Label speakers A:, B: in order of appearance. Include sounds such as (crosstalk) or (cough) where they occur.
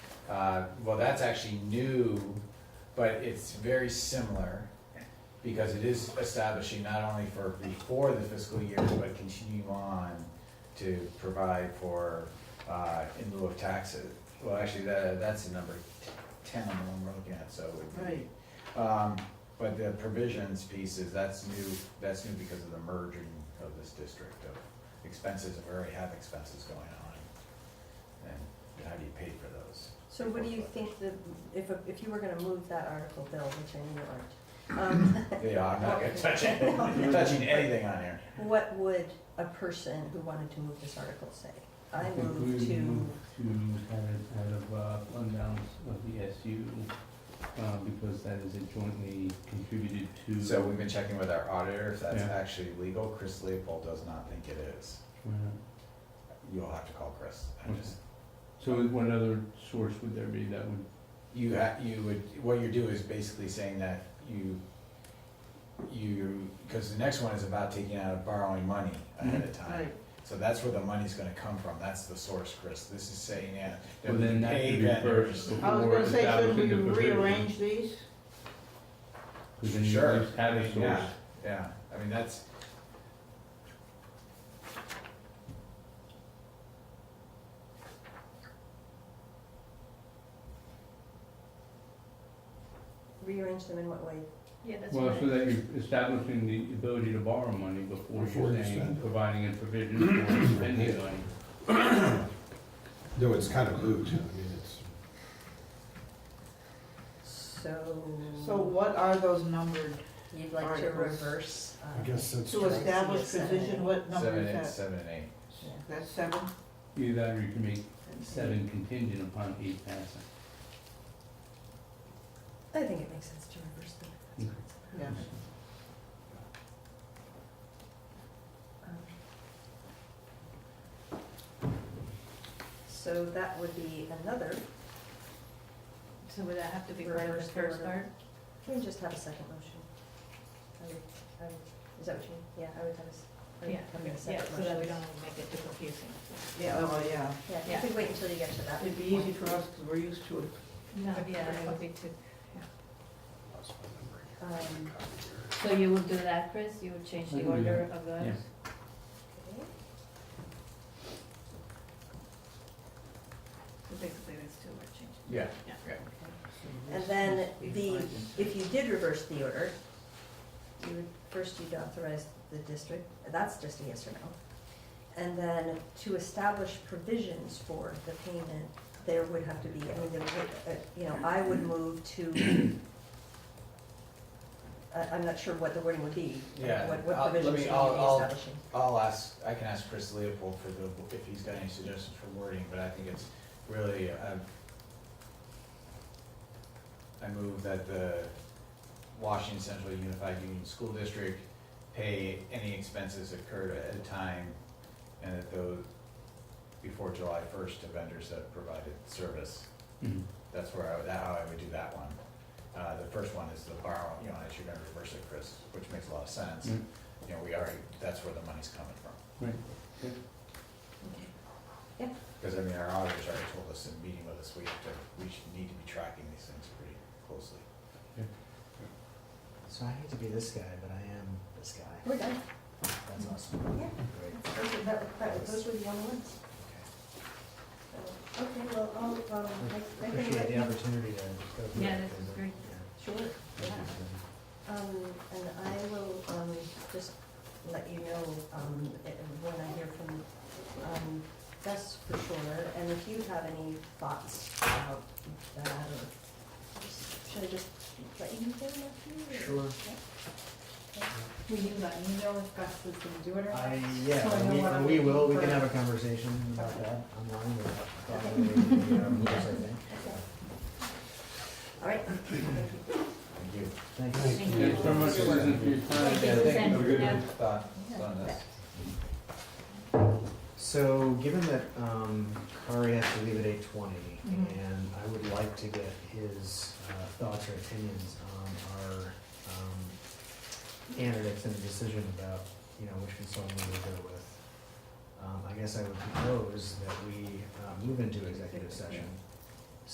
A: Uh, well, that's actually new, but it's very similar because it is establishing not only for before the fiscal year, but continue on to provide for, uh, in lieu of taxes. Well, actually, that, that's the number t- ten, the one we're looking at, so it would be.
B: Right.
A: Um, but the provisions piece is, that's new, that's new because of the merging of this district of expenses, we already have expenses going on. And how do you pay for those?
C: So what do you think that, if, if you were gonna move that article, Bill, which I know you aren't, um,
A: Yeah, I'm not gonna touch it,
C: No.
A: touching anything on here.
C: what would a person who wanted to move this article say? I
D: think we
C: move
D: would
C: to,
D: move To kind of out of uh, fund balance of the SU, uh, because that is a jointly contributed to.
A: So we've been checking with our auditor, if that's
D: Yeah.
A: actually legal, Chris Leopold does not think it is.
D: Why not?
A: You'll have to call Chris, I just,
D: So what other source would there be that would,
A: you ha, you would, what you do is basically saying that you, you, cause the next one is about taking out of borrowing money ahead
D: Mm-hmm.
A: of time.
B: Right.
A: So that's where the money's gonna come from, that's the source, Chris, this is saying, yeah, that
D: well,
A: we
D: then that
A: pay
D: could be
A: vendors.
D: first
B: I was
D: before
B: gonna say, shouldn't
D: establishing
B: we
D: the provision.
B: rearrange these?
D: Because then you
A: Sure.
D: at least have a
A: Yeah,
D: source.
A: yeah, I mean, that's,
C: rearrange them in what way?
E: Yeah, that's
D: Well, so
E: right.
D: that you're establishing the ability to borrow money before
F: Before
D: you're
F: you
D: saying,
F: spend it.
D: providing a provision for
A: (clears throat)
D: spending money.
F: Though it's kind of moot, I mean, it's,
C: So.
B: So what are those numbered?
C: You'd like to
B: Articles.
C: reverse. uh,
F: I guess that's.
B: To establish position, what number
A: seven,
B: is
A: eight,
B: that?
A: seven and eight.
C: yeah.
B: That's seven?
D: Either that or you can make seven contingent upon eight passing.
C: I think it makes sense to reverse them. That's what it's
D: Mm-hmm.
C: about.
B: Yeah.
C: Um, So that would be another,
E: So would that have to be part of the
C: Reverse
E: first
C: order.
E: part?
C: can we just have a second motion? I would- I would- Is that what you mean? Yeah, I would have a, s- I would
E: Yeah,
C: have
E: okay,
C: a
E: yeah,
C: second
E: so that we
C: motion.
E: don't make it too confusing.
B: Yeah, oh, yeah.
C: Yeah, you
E: yeah.
C: could wait until you get to that.
B: It'd be easy for us, because we're used to it.
E: No, yeah, that would be too.
C: Um,
E: So you would do that, Chris? You would change
D: I
E: the
D: can do
E: order of those?
D: yeah.
C: okay.
E: So basically, there's two more changes.
A: Yeah.
C: And then the, if you did reverse the order, you would, first you'd authorize the district, that's just a yes or no. And then to establish provisions for the payment, there would have to be, I mean, there would, uh, you know, I would move to, (coughs) I, I'm not sure what the wording would be,
A: Yeah,
C: what, what
A: I'll- let
C: provisions
A: me-
C: should we be
A: I'll- I'll-
C: establishing.
A: I'll ask, I can ask Chris Leopold for the, if he's got any suggestions for wording, but I think it's really, um, I move that the Washington Central Unified Union School District pay any expenses incurred at a time and that those, before July first to vendors that provided service.
D: Mhm.
A: That's where I, would- how I would do that one. Uh, the first one is the borrow, you know, as you're gonna reverse it, Chris, which makes a lot of sense.
D: Mm.
A: You know, we already, that's where the money's coming from.
D: Right.
C: Okay.
A: Because I mean, our auditors already told us in meeting with us, we have to, we should need to be tracking these things pretty closely.
G: So I hate to be this guy, but I am this guy.
C: We're done,
G: That's awesome.
C: Yeah.
G: Great.
C: those were, that, that- those were the only ones. Okay, well, I'll, um, I, I can
G: Appreciate
C: let
G: the
C: you-
G: opportunity to go through.
E: Yeah,
G: it,
E: this is
G: 'cause,
E: great.
G: yeah,
C: Sure,
G: thank you
C: yeah.
G: for-
C: Um, and I will, um, just let you know, um, eh, when I hear from, um, Gus for sure, and if you have any thoughts about that, or should I just let you know after?
G: Sure.
E: Will you let me know if Gus is gonna do it
G: I,
E: So I know what
G: yeah,
E: I'm
G: we, we will, we can
E: looking
G: have a conversation about that online or probably the, um, I think.
C: All right. (clears throat)
A: Thank you.
G: Thanks.
E: Thank you.
D: Thanks so much, Susan, for your time.
E: Thank you, Susan.
A: Have a good
E: Yeah.
A: thought on
G: uh,
A: this.
G: So, given that um, Kari has to leave at eight twenty,
E: Mhm.
G: and I would like to get his uh, thoughts or opinions on our um, candidates and the decision about you know which consultant we would go with. Um, I guess I would propose that we uh, move into executive session